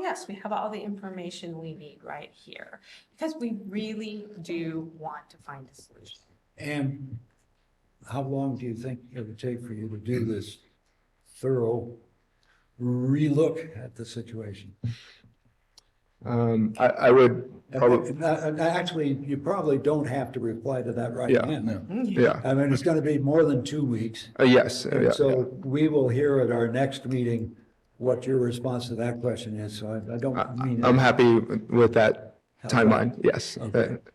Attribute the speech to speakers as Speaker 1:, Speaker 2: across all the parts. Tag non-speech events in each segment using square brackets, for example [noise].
Speaker 1: yes, we have all the information we need right here. Because we really do want to find a solution.
Speaker 2: And how long do you think it would take for you to do this thorough relook at the situation?
Speaker 3: Um, I, I would, probably,
Speaker 2: Uh, uh, Actually, you probably don't have to reply to that right
Speaker 3: Yeah.
Speaker 2: then.
Speaker 3: yeah,
Speaker 2: I mean, it's gonna be more than two weeks.
Speaker 3: Uh, yes, uh, yeah,
Speaker 2: And so we will hear at our next meeting what your response to that question is, so I I don't mean.
Speaker 3: yeah. I'm happy with that timeline, yes.
Speaker 2: Okay.
Speaker 3: Uh,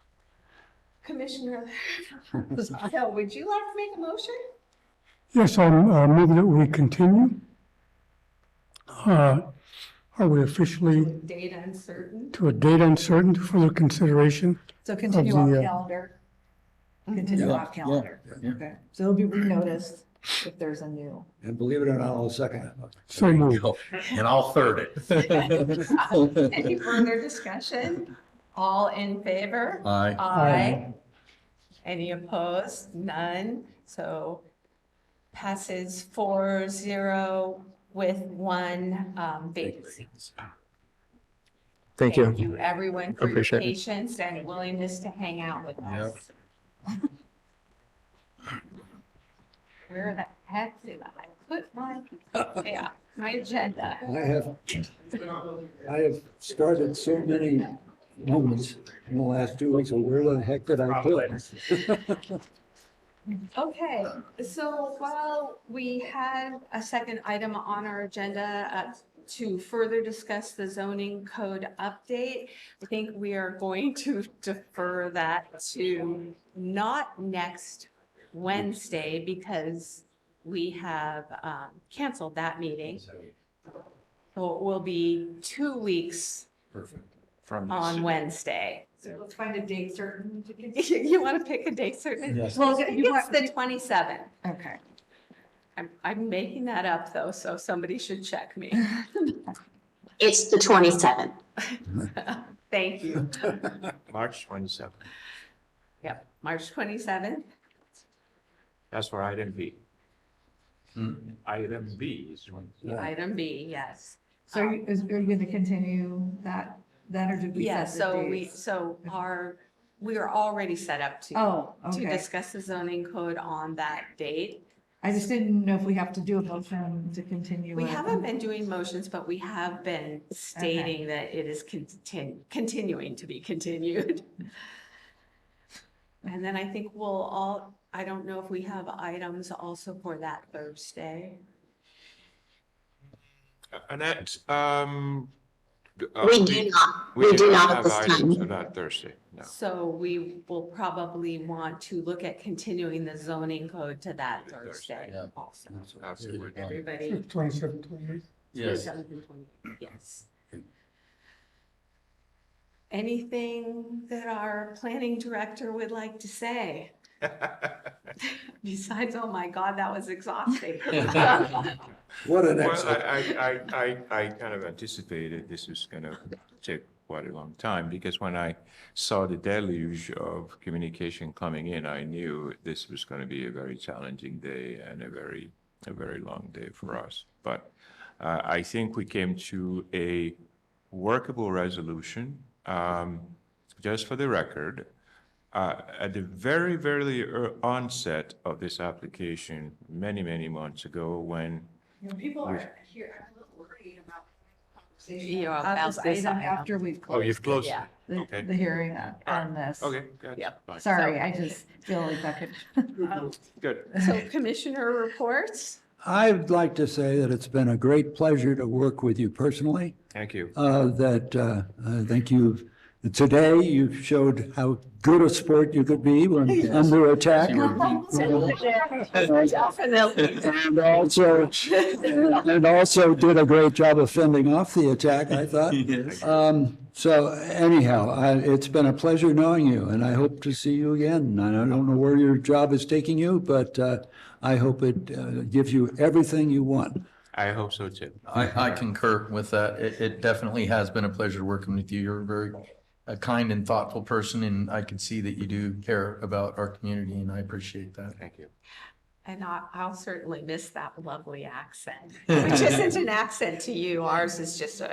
Speaker 1: [laughs] Commissioner Lozano, would you like to make a motion?
Speaker 4: Yes, I'm uh, moving that we continue. Uh, Are we officially
Speaker 1: With Data
Speaker 4: [laughs]
Speaker 1: uncertain.
Speaker 4: to a date uncertain for further consideration?
Speaker 5: So continue
Speaker 4: the,
Speaker 5: off
Speaker 4: uh,
Speaker 5: calendar. Continue off calendar. Okay. So it'll be renoticed if there's a new.
Speaker 2: And believe it or not, I'll second that. motion.
Speaker 4: So moved.
Speaker 6: And I'll third
Speaker 1: [laughs]
Speaker 6: it.
Speaker 1: Any further discussion? All in favor?
Speaker 6: Aye.
Speaker 1: Aye. Any opposed? None. So passes four zero with one um, vacancy.
Speaker 3: Thank you.
Speaker 1: everyone, for your
Speaker 3: Appreciate it.
Speaker 1: patience and willingness to hang out with us. [laughs] Where the heck did I put my, yeah, my agenda?
Speaker 2: I have, I have started so many moments in the last two weeks, and where the heck did I put it?
Speaker 1: Okay, so while we had a second item on our agenda uh, to further discuss the zoning code update, I think we are going to defer that to not next Wednesday because we have um, canceled that meeting. So it will be two weeks on Wednesday. [laughs]
Speaker 5: So let's find a date certain [laughs] to continue.
Speaker 1: You want to pick a date certain?
Speaker 2: Yes.
Speaker 5: Well,
Speaker 1: I think
Speaker 5: you
Speaker 1: It's
Speaker 5: want,
Speaker 1: the 27th.
Speaker 5: okay.
Speaker 1: I'm, I'm making that up though, so somebody should check
Speaker 5: [laughs]
Speaker 1: me.
Speaker 7: It's the twenty-seventh.
Speaker 1: Thank you.
Speaker 8: March twenty-seventh,
Speaker 1: Yep, March 27th.
Speaker 8: that's for item B. Item B is when.
Speaker 1: Item B, yes.
Speaker 5: So are you- is, are you going to continue that, that or did we
Speaker 1: Yeah,
Speaker 5: set
Speaker 1: so
Speaker 5: the
Speaker 1: we,
Speaker 5: dates?
Speaker 1: so our, we are already set up to,
Speaker 5: Oh,
Speaker 1: to
Speaker 5: okay.
Speaker 1: discuss the zoning code on that date.
Speaker 5: I just didn't know if we have to do a motion to continue.
Speaker 1: We
Speaker 5: it.
Speaker 1: haven't been doing motions, but we have been stating that it is contin- continuing to be continued. And then I think we'll all, I don't know if we have items also for that Thursday.
Speaker 8: Annette, um. d- uh,
Speaker 7: We do not, we do not at
Speaker 8: have
Speaker 7: this
Speaker 8: items
Speaker 7: time.
Speaker 8: on that Thursday, no.
Speaker 1: So we will probably want to look at continuing the zoning code to that Thursday
Speaker 6: Yeah. Mm-hmm.
Speaker 1: also.
Speaker 8: Absolutely.
Speaker 1: Everybody.
Speaker 4: Twenty-seven, twenty-eight.
Speaker 6: Yes.
Speaker 1: 27, 28, Yes. Anything that our planning director would like to say?
Speaker 8: [laughs]
Speaker 1: Besides, oh my God, that was
Speaker 6: [laughs]
Speaker 1: exhausting.
Speaker 2: What an
Speaker 8: Well,
Speaker 2: excellent.
Speaker 8: I, I, I, I, I kind of anticipated this is gonna take quite a long time, because when I saw the deluge of communication coming in, I knew this was gonna be a very challenging day and a very, a very long day for us. But, uh, I think we came to a workable resolution. Um, just for the record, uh, at the very, very ear- onset of this application, many, many months ago, when
Speaker 5: People are here, I'm a little worried about. the conversation
Speaker 1: You're
Speaker 5: about Uh, this
Speaker 1: about this
Speaker 5: item
Speaker 1: item.
Speaker 5: After we've
Speaker 8: Oh,
Speaker 5: closed
Speaker 8: you've closed
Speaker 1: Yeah.
Speaker 8: it.
Speaker 5: the,
Speaker 8: okay.
Speaker 5: the hearing on- on this.
Speaker 8: Okay, good.
Speaker 1: Yep.
Speaker 8: Fine.
Speaker 5: Sorry, I just feel like that could. [laughs]
Speaker 8: Good.
Speaker 1: [laughs] So commissioner reports?
Speaker 2: I'd like to say that it's been a great pleasure to work with you personally,
Speaker 8: Thank you.
Speaker 2: uh, that uh, I think you've, today you showed how good a sport you could be when under attack. And also, and also did a great job of fending off the attack, I
Speaker 6: [laughs]
Speaker 2: thought. Um, So anyhow, I- it's been a pleasure knowing you, and I hope to see you again. And I don't know where your job is taking you, but uh, I hope it uh, gives you everything you want.
Speaker 8: I hope so too.
Speaker 6: I, I concur with that. It, it definitely has been a pleasure working with you. You're a very a kind and thoughtful person, and I can see that you do care about our community, and I appreciate that.
Speaker 8: Thank you.
Speaker 1: And I-
Speaker 6: [laughs]
Speaker 1: I'll certainly miss that lovely accent, which isn't an accent to you. Ours is just a